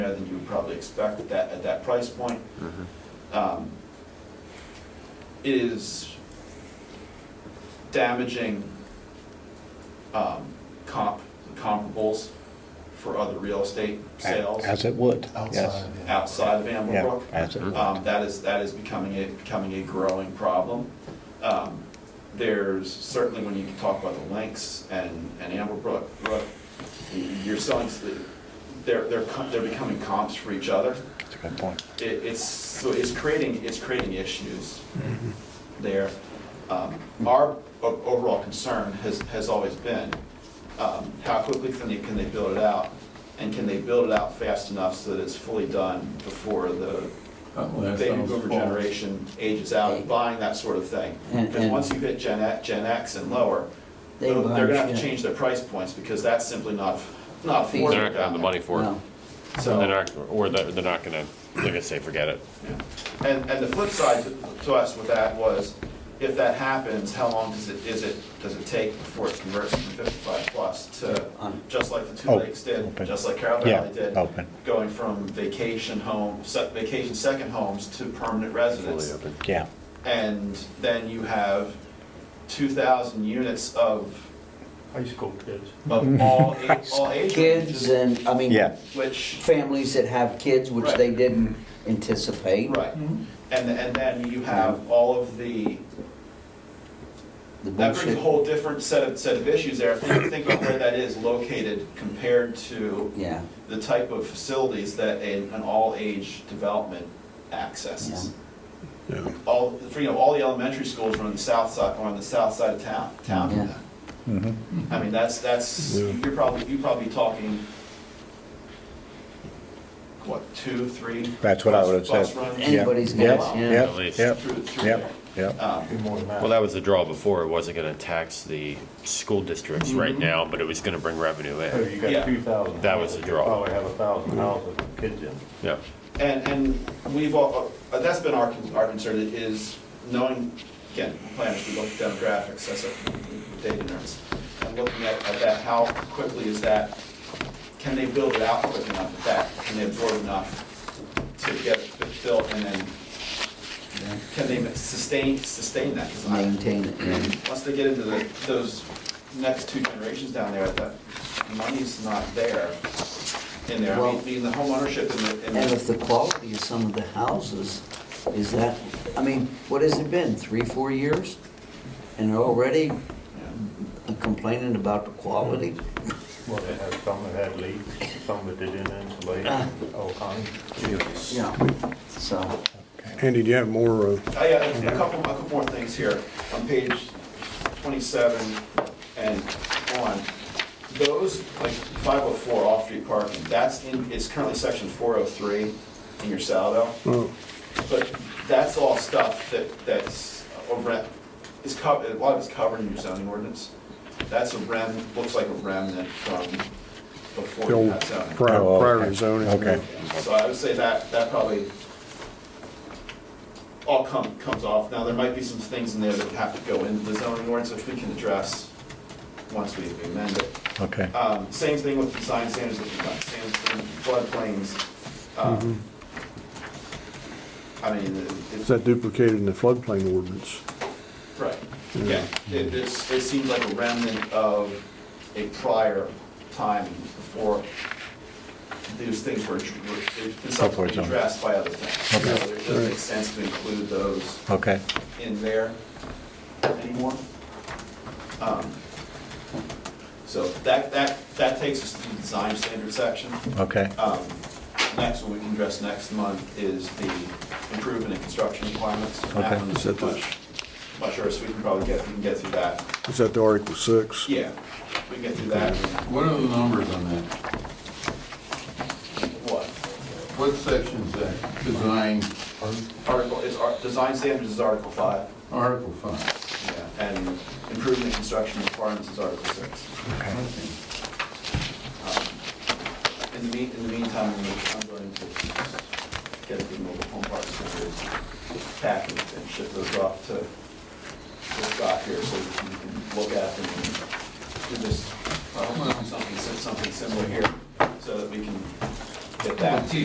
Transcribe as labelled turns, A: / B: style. A: than you would probably expect at that, at that price point.
B: Mhm.
A: Um, It is damaging um, comp, comparables for other real estate sales
C: As it would, yes.
D: outside. yeah.
A: outside of Amber
C: Yeah,
A: Brook.
C: as it would.
A: Um, That is, that is becoming a, becoming a growing problem. Um, There's certainly, when you talk about the Lynx and, and Amber Brook, Brook, you're selling, they're, they're, co- they're becoming comps for each other.
C: That's a good point.
A: It, it's, so it's creating, it's creating issues
E: Mm-hmm.
A: there. Um, Our o- overall concern has, has always been, um, how quickly can they, can they build it out? And can they build it out fast enough so that it's fully done before the
E: Uh, well, that
A: baby
E: sounds
A: boomer
E: false.
A: generation ages out of buying that sort of thing.
F: And-
A: Because
F: and-
A: once you hit Gen X, Gen X and lower,
F: They
A: they're
F: will
A: they're gonna have to
F: understand.
A: change their price points because that's simply not, not
F: They're not
A: affordable.
G: They're not gonna have the
A: down
G: money
A: there.
G: for it.
F: No.
A: So-
G: And they're not, or they're, they're not gonna, they're gonna say, forget it.
A: And, and the flip side to- to us with that was, if that happens, how long does it, is it, does it take before it converts from 55 plus to,
F: Um,
A: just like the Two
C: Oh,
A: Lakes did,
C: open.
A: just like Carroll
C: Yeah,
A: Valley did?
C: open.
A: Going from vacation home, se- vacation second homes to permanent
G: Fully
A: residence.
G: open.
C: Yeah,
A: And then you have 2,000 units of,
H: High school kids.
A: of all, a- all age
F: Kids
A: ranges,
F: and, I mean,
C: yeah.
A: which
F: families that have kids, which
A: Right.
F: they didn't anticipate.
A: Right,
H: Mm-hmm.
A: and, and then you have all of the,
F: The
A: that brings
F: bullshit.
A: a whole different set of, set of issues there. Think think of where that is located compared to
F: Yeah,
A: the type of facilities that an, an all-age development accesses. All, for, you know, all the elementary schools are on the south side, are on the south side of town, town.
F: Yeah.
C: mhm.
A: I mean, that's, that's, you're probably, you're probably talking, what, two, three?
C: That's what I would've
A: bus- Bus
C: said.
A: runs?
C: Yeah,
F: Anybody's
C: yeah,
F: guess, yeah.
C: yeah,
G: At least.
C: yeah,
A: Through, through
C: yeah,
A: there.
C: yeah.
A: Um,
D: Be more than that.
G: Well, that was the draw before, it wasn't gonna tax the school districts right now, but it was gonna bring revenue
H: So
G: in.
H: you
A: Yeah.
H: got two thousand.
G: That was the draw.
H: Probably have a thousand houses with kids in.
G: Yeah.
A: And, and we've all, uh, that's been our, con- our concern is knowing, again, planners, we look at demographics, that's a data nerds. And looking at, at that, how quickly is that, can they build it out quick enough at that? Can they absorb enough to get it built and then, can they sustain, sustain that? 'Cause I-
F: maintain it, yeah.
A: Once they get into the, those next two generations down there, that money's not there in there. I
F: Well-
A: mean, being the homeownership and the. and the-
F: And if the quality of some of the houses is that, I mean, what has it been, three, four years? And they're already complaining about the quality?
H: Well, they had some that had leaks, some that they didn't insulate, all kinds.
F: Yeah, so,
I: Andy, do you have more, uh,
A: I got a couple, a couple more things here. On page 27 and on, those, like 504 off-street parking, that's in, it's currently section 403 in your Saldo.
I: oh,
A: But that's all stuff that, that's a rem, is covered, a lot of it's covered in your zoning ordinance. That's a rem, looks like a remnant from before
I: the
A: you
I: old
A: got zoning.
I: prior
C: Oh, okay.
I: prior zoning?
C: Okay.
A: So I would say that, that probably all come, comes off. Now, there might be some things in there that have to go into the zoning ordinance, which we can address once we amend it.
C: Okay.
A: Um, Same thing with design standards, if you've got standards for floodplains. um, I mean,
I: Is
A: it's,
I: that duplicated in the floodplain ordinance?
A: right, yeah. It, it's- it seems like a remnant of a prior time before these things were, were- in some
C: Before
A: way
C: it's on.
A: addressed by other things.
C: Okay.
A: So It doesn't make sense to include those
C: Okay,
A: in there anymore. Um, So that, that, that takes us to the design standard section.
C: okay.
A: Um, Next, one we can address next month is the improvement in construction requirements. That
C: Okay.
A: one is
I: Is that the-
A: much, much worse, we can probably get, we can get through that.
I: Is that the Article 6?
A: Yeah, we can get through that.
E: What are the numbers on that?
A: What?
E: What section's that? Design,
A: Article, it's, ar- design standards is Article 5,
E: Article 5.
A: yeah, and improvement in construction requirements is Article 6. In the mean, in the meantime, I'm gonna- I'm going to get the mobile home park stickers packaged and ship those off to to Scott here so that you can look at them and do this, uh, something, something similar here so that we can get that to you.